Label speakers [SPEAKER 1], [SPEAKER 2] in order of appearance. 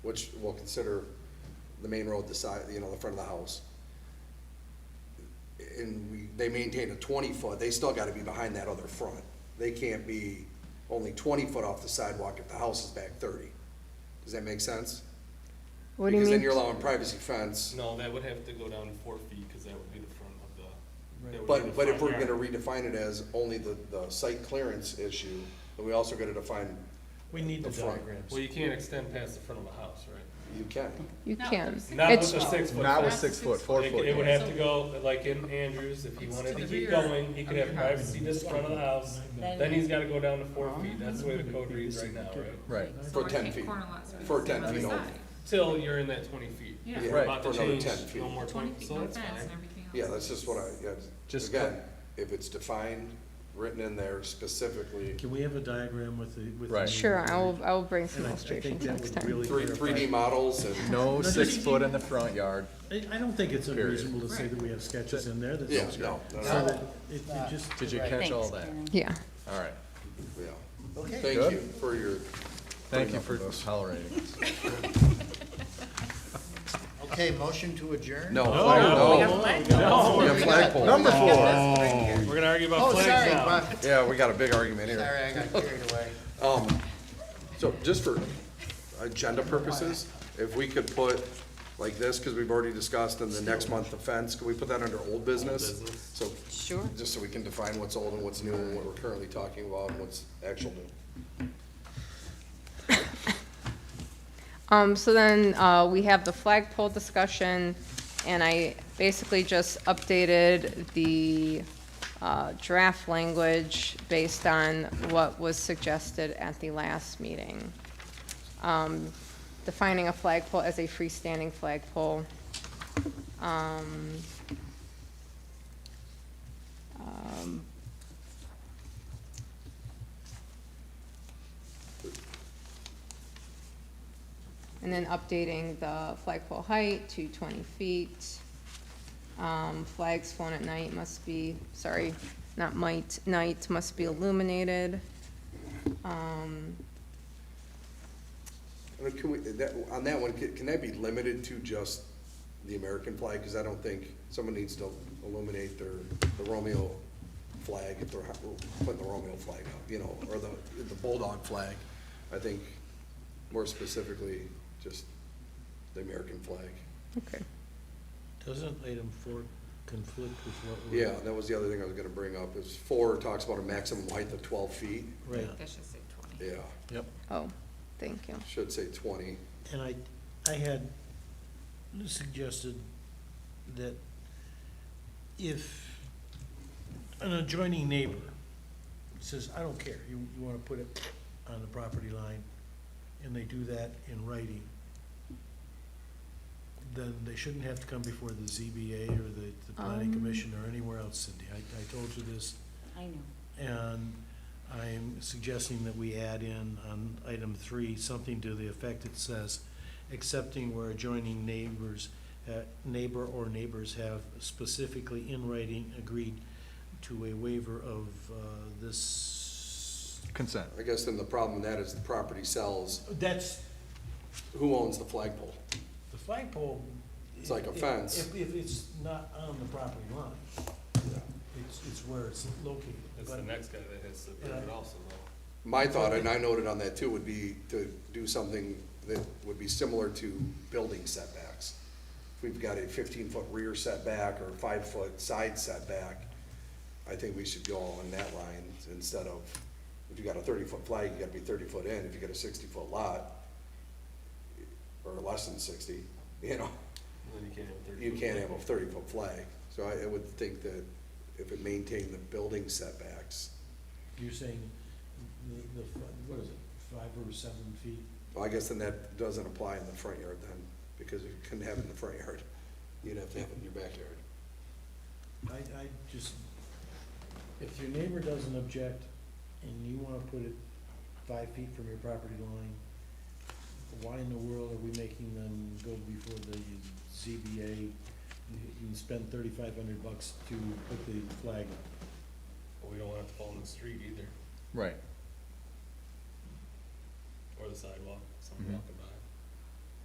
[SPEAKER 1] which will consider the main road, the side, you know, the front of the house. And we, they maintain a twenty foot, they still gotta be behind that other front. They can't be only twenty foot off the sidewalk if the house is back thirty. Does that make sense?
[SPEAKER 2] What do you
[SPEAKER 1] Because then
[SPEAKER 2] mean?
[SPEAKER 1] you're allowing privacy fence.
[SPEAKER 3] No, that would have to go down four feet, because that would be the front of the. that would be the
[SPEAKER 1] But, but if we're
[SPEAKER 3] front
[SPEAKER 1] gonna
[SPEAKER 3] yard.
[SPEAKER 1] redefine it as only the, the site clearance issue, then we also gotta define,
[SPEAKER 4] We need the
[SPEAKER 1] The front.
[SPEAKER 4] diagrams.
[SPEAKER 3] Well, you can't extend past the front of the house, right?
[SPEAKER 1] you can.
[SPEAKER 2] You
[SPEAKER 5] No,
[SPEAKER 2] can.
[SPEAKER 5] it's-
[SPEAKER 3] Not with
[SPEAKER 2] It's,
[SPEAKER 3] a six foot.
[SPEAKER 6] Not with
[SPEAKER 5] Not
[SPEAKER 6] six foot,
[SPEAKER 5] six
[SPEAKER 6] four
[SPEAKER 3] It
[SPEAKER 6] foot.
[SPEAKER 3] it would have to go, like in Andrews, if he
[SPEAKER 5] It's
[SPEAKER 3] wanted
[SPEAKER 5] to
[SPEAKER 3] to
[SPEAKER 5] the
[SPEAKER 3] keep
[SPEAKER 5] rear
[SPEAKER 3] going, he could
[SPEAKER 5] of
[SPEAKER 3] have
[SPEAKER 5] your house.
[SPEAKER 3] privacy this front of the house, then he's gotta go down to four feet, that's the way the code reads right now, right?
[SPEAKER 6] Right.
[SPEAKER 1] For
[SPEAKER 5] So I
[SPEAKER 1] 10
[SPEAKER 5] think
[SPEAKER 1] feet.
[SPEAKER 5] corner lots would
[SPEAKER 1] For
[SPEAKER 5] be the
[SPEAKER 1] 10
[SPEAKER 5] other
[SPEAKER 1] feet
[SPEAKER 5] side.
[SPEAKER 3] Till you're in that twenty feet.
[SPEAKER 5] Yeah.
[SPEAKER 1] Yeah.
[SPEAKER 3] We're about to
[SPEAKER 1] For another
[SPEAKER 3] change,
[SPEAKER 1] 10 feet.
[SPEAKER 3] no more
[SPEAKER 5] Twenty
[SPEAKER 3] twenty,
[SPEAKER 5] feet,
[SPEAKER 3] so
[SPEAKER 5] no
[SPEAKER 3] that's
[SPEAKER 5] fence
[SPEAKER 3] fine.
[SPEAKER 5] and everything else.
[SPEAKER 1] Yeah, that's just what I, yeah,
[SPEAKER 6] Just
[SPEAKER 1] again, if it's defined, written in there specifically,
[SPEAKER 4] Can we have a diagram with the, with? the
[SPEAKER 6] Right.
[SPEAKER 4] new-
[SPEAKER 2] sure, I'll, I'll bring some
[SPEAKER 4] And I- I think
[SPEAKER 2] illustrations
[SPEAKER 4] that
[SPEAKER 2] next
[SPEAKER 4] would
[SPEAKER 2] time.
[SPEAKER 4] really
[SPEAKER 1] three, three D
[SPEAKER 4] clarify.
[SPEAKER 1] models and,
[SPEAKER 6] No
[SPEAKER 4] just-
[SPEAKER 6] six foot in the front yard.
[SPEAKER 4] I, I don't think it's
[SPEAKER 6] Period.
[SPEAKER 4] unreasonable to say that we have sketches in there that's.
[SPEAKER 1] yeah, no, no,
[SPEAKER 4] So
[SPEAKER 1] no,
[SPEAKER 4] that it, it just.
[SPEAKER 6] Did you catch all that?
[SPEAKER 2] Yeah.
[SPEAKER 6] All right.
[SPEAKER 1] yeah.
[SPEAKER 7] Okay,
[SPEAKER 1] Thank
[SPEAKER 6] Good.
[SPEAKER 1] you for your,
[SPEAKER 6] Thank you for tolerating us.
[SPEAKER 7] okay, motion to adjourn?
[SPEAKER 1] no,
[SPEAKER 4] No.
[SPEAKER 1] flag- no,
[SPEAKER 4] No.
[SPEAKER 1] yeah, flagpole.
[SPEAKER 6] Number four.
[SPEAKER 3] We're gonna argue about
[SPEAKER 7] Oh,
[SPEAKER 3] flags
[SPEAKER 7] sorry,
[SPEAKER 3] now.
[SPEAKER 7] Bob.
[SPEAKER 1] Yeah, we got a big argument here.
[SPEAKER 7] sorry, I got carried away.
[SPEAKER 1] Um, so just for agenda purposes, if we could put like this, because we've already discussed in the next month offense, can we put that under old business? So,
[SPEAKER 2] Sure.
[SPEAKER 1] just so we can define what's old and what's new and what we're currently talking about and what's actual new.
[SPEAKER 2] Um, so then, uh, we have the flagpole discussion, and I basically just updated the, uh, draft language based on what was suggested at the last meeting. Um, defining a flagpole as a freestanding flagpole. Um, um, And then updating the flagpole height to twenty feet. Um, flags flown at night must be, sorry, not might, night must be illuminated. Um,
[SPEAKER 1] And can we, that, on that one, can can that be limited to just the American flag? Because I don't think someone needs to illuminate their, the Romeo flag if they're putting the Romeo flag up, you know, or the, the Bulldog flag. I think more specifically, just the American flag.
[SPEAKER 2] okay.
[SPEAKER 4] Doesn't item four conflict with what we're?
[SPEAKER 1] Yeah, that was the other thing I was gonna bring up, is four talks about a maximum height of twelve feet.
[SPEAKER 4] Right,
[SPEAKER 5] That should say twenty.
[SPEAKER 1] Yeah,
[SPEAKER 6] Yep.
[SPEAKER 2] Oh, thank you.
[SPEAKER 1] should say twenty.
[SPEAKER 4] and I, I had suggested that if an adjoining neighbor says, I don't care, you, you wanna put it on the property line, and they do that in writing, then they shouldn't have to come before the ZBA or the, the planning
[SPEAKER 2] Um.
[SPEAKER 4] commission or anywhere else, Cindy. I, I told you this
[SPEAKER 8] I know.
[SPEAKER 4] And I'm suggesting that we add in on item three, something to the effect that says, accepting where adjoining neighbors, uh, neighbor or neighbors have specifically in writing agreed to a waiver of uh, this.
[SPEAKER 6] Consent.
[SPEAKER 1] I guess then the problem with that is the property sells,
[SPEAKER 4] That's
[SPEAKER 1] who owns the flagpole?
[SPEAKER 4] the flagpole.
[SPEAKER 1] It's like a
[SPEAKER 4] if-
[SPEAKER 1] fence.
[SPEAKER 4] If, if it's not on the property line, it's, it's where it's located.
[SPEAKER 3] That's
[SPEAKER 4] But-
[SPEAKER 3] the next guy that has to prove it also, though.
[SPEAKER 1] My thought, and I noted on that too, would be to do something that would be similar to building setbacks. If we've got a fifteen-foot rear setback or five-foot side setback, I think we should go on that line instead of, if you got a thirty-foot flag, you gotta be thirty foot in, if you got a sixty-foot lot, or less than sixty, you know,
[SPEAKER 3] Then you can't have thirty.
[SPEAKER 1] you
[SPEAKER 3] foot.
[SPEAKER 1] can't have a thirty-foot flag. So I, I would think that if it maintained the building setbacks,
[SPEAKER 4] You're saying the, the, what is it, five or seven feet?
[SPEAKER 1] Well, I guess then that doesn't apply in the front yard then, because you couldn't have it in the front yard. You'd have to have it in your backyard.
[SPEAKER 4] I, I just, if your neighbor doesn't object and you wanna put it five feet from your property line, why in the world are we making them go before the ZBA and spend thirty-five hundred bucks to put the flag up?
[SPEAKER 3] But We don't want it to fall in the street either,
[SPEAKER 6] Right.
[SPEAKER 3] or the sidewalk, so
[SPEAKER 6] Mhm.
[SPEAKER 1] Mm-hmm.
[SPEAKER 3] I'm talking about.